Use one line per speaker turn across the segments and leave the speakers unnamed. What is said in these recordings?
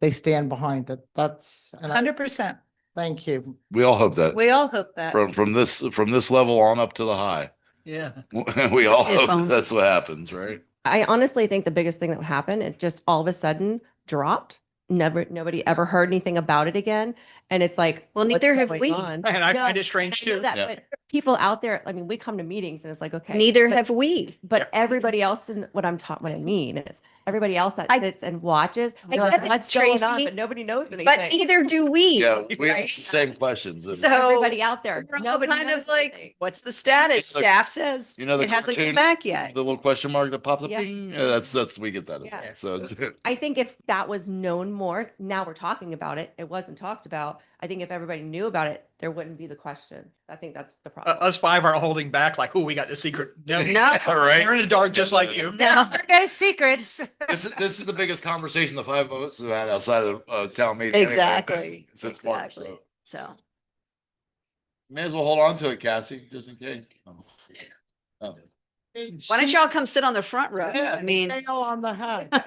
they stand behind it. That's, and I,
Hundred percent.
thank you.
We all hope that
We all hope that.
from, from this, from this level on up to the high.
Yeah.
We all
If
hope
only.
that's what happens, right?
I honestly think the biggest thing that would happen, it just all of a sudden dropped. Never, nobody ever heard anything about it again. And it's like,
Well,
what's
neither have
going
we.
on?
And I
No,
find it
I
strange
know
too.
that,
Yeah.
but People out there, I mean, we come to meetings and it's like, okay.
Neither
but-
have we.
But everybody else in what I'm taught, what I mean is everybody else that
I-
sits and watches,
I
they're like,
get it,
what's going on?
Tracy,
But nobody knows anything.
But either do we.
Yeah, we ask the same questions. and-
So
Everybody out there,
we're all
nobody
kind
knows
of like,
anything.
What's the status?
It's like-
Staff says
You know the
it hasn't
cartoon-
come back
The
yet.
little question mark that pops up,
Yeah.
ding, yeah, that's, that's, we get that. as
Yeah.
well. So it's-
I think if that was known more, now we're talking about it. It wasn't talked about. I think if everybody knew about it, there wouldn't be the question. I think that's the
Uh,
problem.
Us five are holding back like, oh, we got the secret. No,
No.
All right.
You're in the dark just like you.
No.
No secrets.
This is, this is the biggest conversation the five of us have had outside of, uh, town meeting. anyway,
Exactly.
Since March,
Exactly.
so.
So.
May as well hold on to it, Cassie, just in case. Oh.
Why don't y'all come sit on the front row?
Yeah.
I mean,
Nail on the head.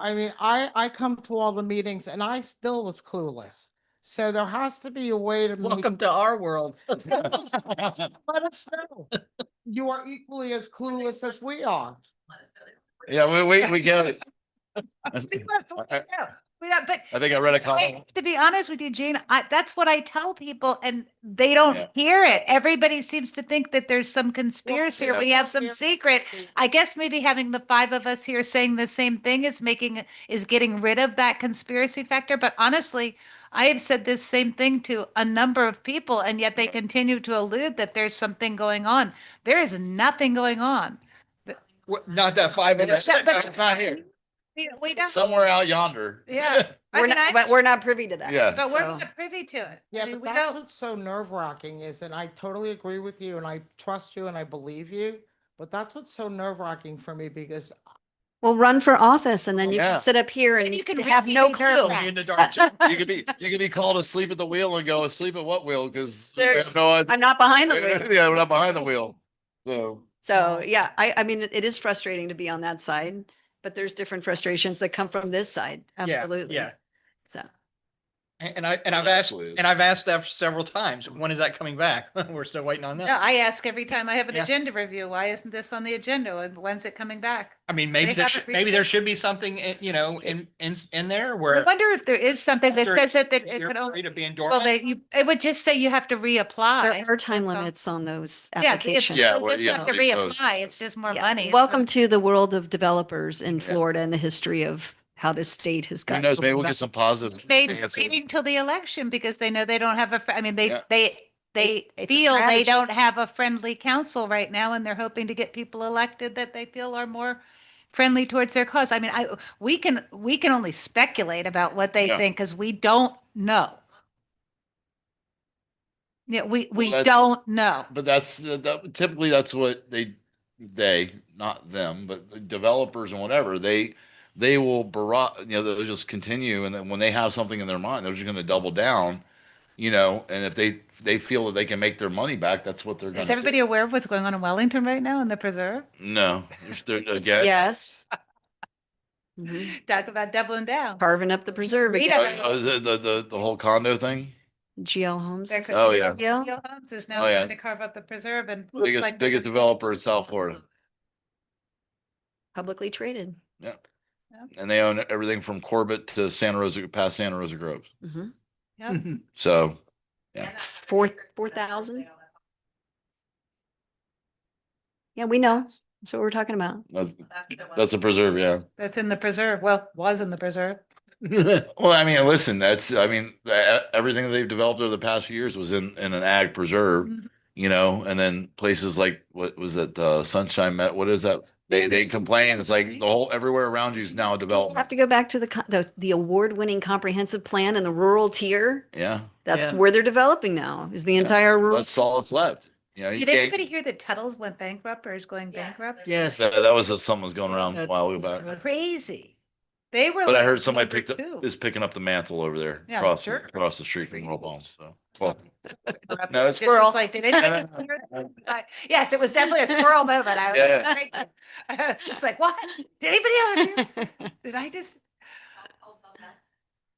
I mean, I, I come to all the meetings and I still was clueless. So there has to be a way to. make-
Welcome to our world.
Let us know. You are equally as clueless as we are.
Yeah, we, we, we get it. I
We
think
left the
I-
way out. We got- But
I think I read a
I-
comment.
to be honest with you, Gene, I, that's what I tell people and they don't
Yeah.
hear it. Everybody seems to think that there's some conspiracy or
yeah.
we have some secret. I guess maybe having the five of us here saying the same thing is making, is getting rid of that conspiracy factor. But honestly, I have said this same thing to a number of people and yet they continue to allude that there's something going on. There is nothing going on.
What- Not that five of us.
That- that's-
It's not here.
We, we don't,
Somewhere out yonder.
Yeah. I
we're
mean, I-
not, but we're not privy to that.
Yeah.
but we're
so-
not privy to it. I
Yeah,
mean,
but
we
that's
don't.
what's so nerve wracking is, and I totally agree with you and I trust you and I believe you. But that's what's so nerve wracking for me because
Well, run for office and then you
Yeah.
can sit up here and
And
you
you can
can have
really
no
be
clue.
careful.
You're in the dark. too.
You could be, you could be called asleep at the wheel and go asleep at what wheel? Cause we
There's-
have no idea.
I'm not behind the wheel.
Yeah, we're not behind the wheel. So,
So, yeah, I, I mean, it- it is frustrating to be on that side, but there's different frustrations that come from this side.
Yeah,
Absolutely.
Yeah.
So.
And and I, and I've asked,
Absolutely.
and I've asked that several times. When is that coming back? We're still waiting on
No,
that.
I ask every time I have an
Yeah.
agenda review, why isn't this on the agenda? And when's it coming back?
I mean, maybe
They
there,
haven't
should- maybe there
researched-
should be something, in- you know, in, in, in
I
there where.
wonder if there is something that
They're-
says that that it
you're
could only,
afraid of being
well,
dormant.
that you, it would just say you have to reapply.
There are time
that's all.
limits on those
Yeah, if- if-
applications.
Yeah,
so
well,
just
yeah,
have To
it goes.
reapply, it's just more
Yeah.
money.
Welcome to the world of developers in
Yeah.
Florida and the history of how this state has
who
gotten.
knows, maybe we'll get some positive.
They
answers.
waiting till the election because they know they don't have a, fr- I mean, they,
Yeah.
they, they
it's a
feel they
strategy.
don't have a friendly council right now and they're hoping to get people elected that they feel are more friendly towards their cause. I mean, I, we can, we can only speculate about what they
Yeah.
think because we don't know. Yeah, we, we
that's-
don't know.
But that's uh, that, typically that's what they they not them but the developers and whatever they they will barrage you know they'll just continue and then when they have something in their mind they're just going to double down you know and if they they feel that they can make their money back that's what they're going
Is
to
everybody aware of what's going on in Wellington right now in the preserve?
no There's- there- again
Yes. Mhm.
Talk about doubling down.
Carving up the preserve.
We
again.
don't-
Oh, is it the, the the whole condo thing
GL Homes.
They're
is
Oh,
it
yeah.
GL?
Neil Holmes is now
Oh, yeah.
trying to carve up the preserve and. looks
biggest
like-
biggest developer in south florida
Publicly traded.
yep
Yep.
and they own everything from corbett to santa rosa past santa rosa groves
Mhm.
Yep.
so
Four, four thousand. Yeah, we know. That's what we're talking about.
that's that's a preserve yeah
That's in the preserve. Well, was in the preserve.
Well, I mean, listen, that's, I mean, e- everything they've developed over the past few years was in, in an ag preserve,
Mhm.
you know, and then places like, what was it, uh, Sunshine Met, what is that? They, they complain, it's like the whole, everywhere around you is now a
Have
development.
to go back to the, co- the, the award-winning comprehensive plan and the rural tier.
Yeah,
That's
Yeah.
where they're developing now is the
Yeah.
entire rural.
that's all that's left, you know. you
Did
can't-
anybody hear that Tuttle's went bankrupt or is going bankrupt?
Yes.
That, that was, someone's going around a while back,
Crazy. They were.
but I
like
heard somebody
number
picked up,
two.
is picking up the mantle over there,
Yeah,
across,
sure.
across the street from World Home, so. well,
Something- something corrupt.
No, it's
Just was Like, did anybody
No,
hear that? I- Yes, it was definitely a squirrel moment. I was
Yeah.
thinking- I was just like, what? Did anybody else? hear? Did I just?